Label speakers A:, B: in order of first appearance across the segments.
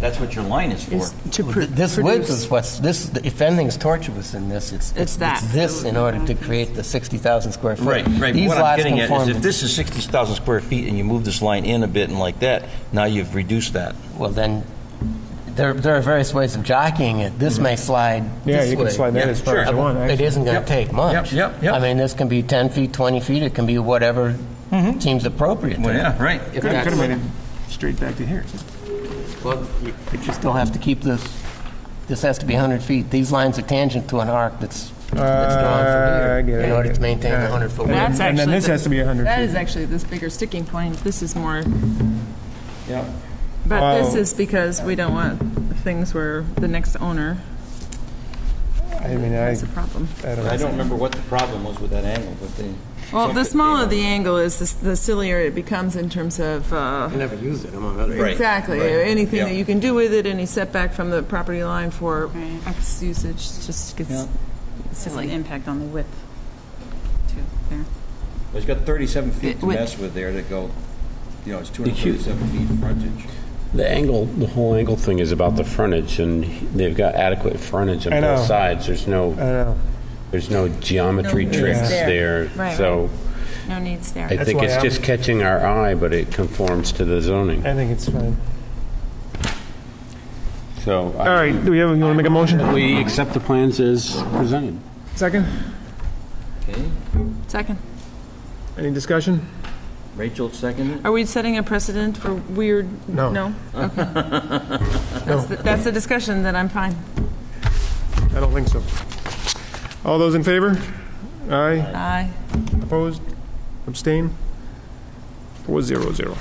A: That's what your line is for.
B: is to
C: Oh,
D: Well,
B: pr-
D: th- This
B: produce.
D: width is what's, this, if anything's tortuous in this, it's,
B: It's that.
D: this in order to create the 60,000 square foot.
A: Right, right. But
D: These
A: What I'm
D: lots
A: getting at is
D: conform
A: if
D: to-
A: this is 60,000 square feet and you move this line in a bit and like that, now you've reduced that.
D: Well, then, there, there are various ways of jockeying it. This may slide
C: Yeah,
D: this
C: you can
D: way.
C: slide that
A: Yeah,
C: as far as
A: sure.
C: you want,
D: It
C: actually.
D: isn't going
A: Yep.
D: to take
A: Yep,
D: much.
A: yep, yep.
D: I mean, this can be 10 feet, 20 feet, it can be whatever seems appropriate. to
A: Mm-hmm. Well,
D: it.
A: yeah, right.
D: If
C: Could have
D: that's-
C: made it straight back to here.
D: Well, you- but you still have to keep this, this has to be 100 feet. These lines are tangent to an arc that's, that's drawn
C: Uh, I
D: from
C: get
D: here
C: it,
D: in
C: I
D: order
C: get
D: to
C: it.
D: maintain the
C: All right.
D: 100-foot width.
C: And then-
E: That's
C: and then
E: actually
C: this
E: the-
C: has to be 100
E: That
C: feet.
E: is actually this bigger sticking point. This is more,
A: Yeah.
E: but this
C: Wow.
E: is because we don't want things where the next owner
C: I mean, I,
E: has a problem.
C: I don't
A: I
C: know.
A: don't remember what the problem was with that angle, but they.
E: Well, the smaller the angle is, the s- the sillier it becomes in terms of, uh,
D: I never used it, among other
A: Right,
E: exactly,
A: right.
E: anything that
A: Yeah.
E: you can do with it, any setback from the property line for X usage just
A: Yeah.
E: gets
F: Has an
E: silly.
F: impact on the width, too, there.
A: It's got 37 feet to
E: With-
A: mess with there to go, you know, it's 237 feet frontage.
G: The angle, the whole angle thing is about the frontage, and they've got adequate frontage
C: I
G: on both
C: know.
G: sides. There's
C: I don't
G: no,
C: know.
G: there's no geometry
E: No,
G: tricks
E: yeah.
G: there.
E: Right,
G: So
E: No needs there.
G: I
C: That's
G: think
C: why
G: it's
C: I'm-
G: just catching our eye, but it conforms to the zoning.
C: I think it's fine.
G: So.
C: All right, do we have, you want to make a motion?
G: We accept the plans as presented.
C: Second?
A: Okay.
E: Second.
C: Any discussion?
A: Rachel seconded.
E: Are we setting a precedent for weird?
C: No.
E: No? Okay. That's the- That's the discussion, then I'm fine.
C: I don't think so. All those in favor? Aye.
E: Aye.
C: Opposed? Abstain? Four zero zero.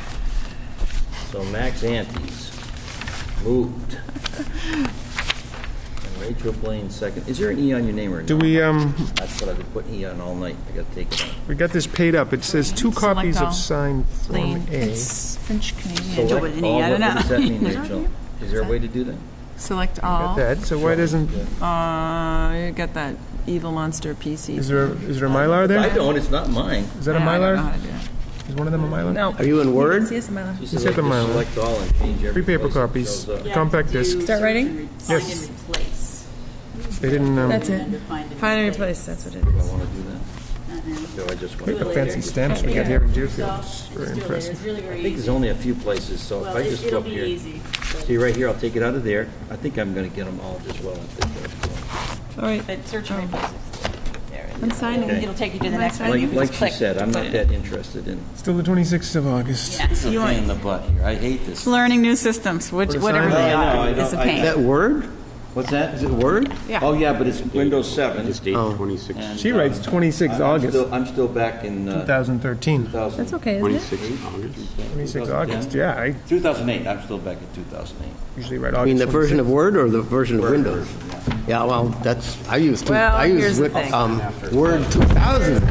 A: So Max Antes moved. And Rachel Blaine second. Is there an E on your name or?
C: Do
A: no?
C: we, um,
A: That's what I've been putting E on all night. I gotta take it out.
C: we got this paid up. It says two
E: Select
C: copies
E: all.
C: of signed Form
E: Plain.
C: A.
F: It's French Canadian.
A: Select
F: What
A: all.
F: I
A: What
F: don't
A: what does
F: know.
A: that mean, Rachel? Is there a way to do that?
E: Select
C: Got
E: all.
C: that, so why doesn't,
E: Uh, you got that evil monster
C: is
E: PC.
C: there, is there a Mylar
A: I
C: there?
A: don't, it's not mine.
C: Is that a
E: I don't know
C: Mylar?
E: how to do that.
C: Is one of them a Mylar?
E: No.
D: Are you in Word?
E: Yes, Mylar.
A: Just
C: hit the mile.
A: Select all and change every
C: Three paper
A: place that
C: copies,
A: shows up.
C: compact disc.
E: Start writing?
C: Yes. They didn't, um,
E: That's it. Find and replace, that's what it
A: I
E: is.
A: wanna do that.
F: Uh-huh.
A: So I just
C: look at the
A: wanna.
C: fancy stamps we got here in Deerfield. It's very impressive.
H: really, really
A: I think there's only a few places, so if I just go up here.
H: easy.
A: See, right here, I'll take it out of there. I think I'm gonna get them all just well. and fit there.
E: All right,
H: But search
F: Oh.
H: and replace it. There it
E: I'm
H: is.
E: signing.
H: It'll take you to the
E: Am I
H: next one. You
A: Like,
H: can
A: like
H: just
A: she
H: click.
A: said, I'm not that interested in.
C: Still the 26th of August.
A: It's a pain in the butt here. I hate this.
F: Learning new systems, which,
C: Put a
F: whatever
C: sign
F: they
A: up. I know,
F: are,
A: I
F: is a
A: know, I-
F: pain.
D: Word?
A: What's that?
D: Is it Word?
F: Yeah.
A: Oh, yeah, but it's Windows 7.
G: Just eight twenty-six,
A: And,
C: She
A: uh,
C: writes 26th
A: I'm
C: August,
A: still- I'm still back in uh,
C: 2013.
A: 2000.
E: that's okay, isn't it?
G: twenty-six August.
C: 26th August, yeah, I
A: 2008, I'm still back in 2008.
C: usually write
D: I mean,
C: August
D: the
C: 26th.
D: version of Word or the version of
A: Word
D: Windows? Yeah, well, that's, I use, two-
E: Well,
D: I
E: here's
D: use
E: the
D: Win-
E: thing.
D: um, Word 2000,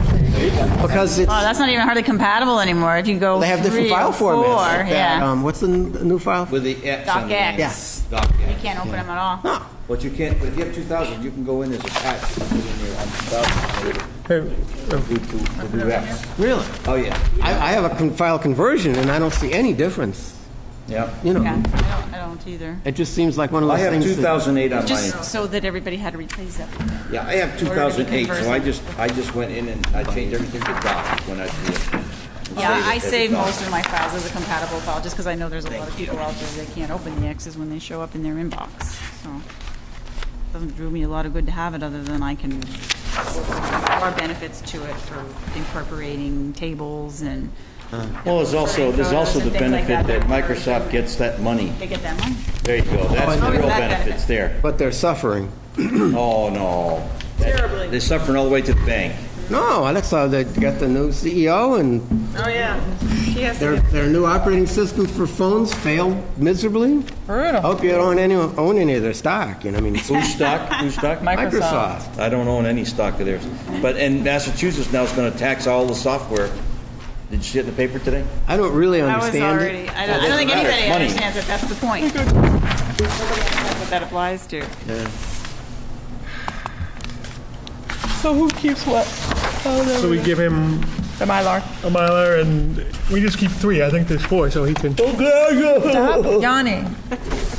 D: because it's,
F: Oh, that's not even hardly compatible anymore. If you go
D: they have different
F: three or
D: file
F: four,
D: formats. like that.
F: yeah.
D: Um, What's the n- the new file?
A: With the X on the end.
F: DocX. You
A: DocX.
F: can't open them at all.
A: But you can't, but if you have 2000, you can go in as a patch, you can put in there on 2000,
C: Hey, oh,
A: do two, we'll do X.
D: Really?
A: Oh, yeah,
D: I, I have a con- file conversion, and I don't see any difference,
A: yeah.
D: you
F: Yeah,
D: know?
F: I don't, I don't either.
D: It just seems like one of
A: I
D: those
A: have
D: things. that-
A: 2008 on my,
F: Just so that everybody had to replace it.
A: yeah, I have 2008, so I just, I just went in and I changed everything to doc when I did it.
F: Yeah,
A: Save it
F: I
A: as a
F: save
A: doc.
F: most of my files as a compatible file, just because I know there's a lot of people out there that can't open the X's when they show up in their inbox, so. Doesn't do me a lot of good to have it, other than I can, there are benefits to it for incorporating tables and.
A: Well, there's also, there's also the
F: Things like
A: benefit that
F: that.
A: Microsoft gets that money.
F: They get that one?
A: There you go, that's the
F: Always
A: real
F: Oh, that benefit.
A: benefits there.
D: But they're suffering.
A: Oh, no. Terribly. They're suffering all the way to the bank.
D: No, that's how they got the new CEO, and
E: Oh, yeah. She has
D: their, their new operating system for phones failed miserably.
E: Brutal.
D: Hope you don't any- own any of their stock, you know, I mean,
A: Who's stock, who's stock?
D: Microsoft.
A: I don't own any stock of theirs. But, and Massachusetts now is going to tax all the software. Did you see it in the paper today?
D: I don't really
F: That was
D: understand it.
F: already, I don't, I don't think
A: doesn't matter.
F: anybody
A: Money.
F: understands it, that's the point. Nobody understands What that applies to.
B: So who keeps what?
C: So we give him
B: The Mylar.
C: a Mylar, and we just keep three. I think there's four, so he can.
E: Stop yawning.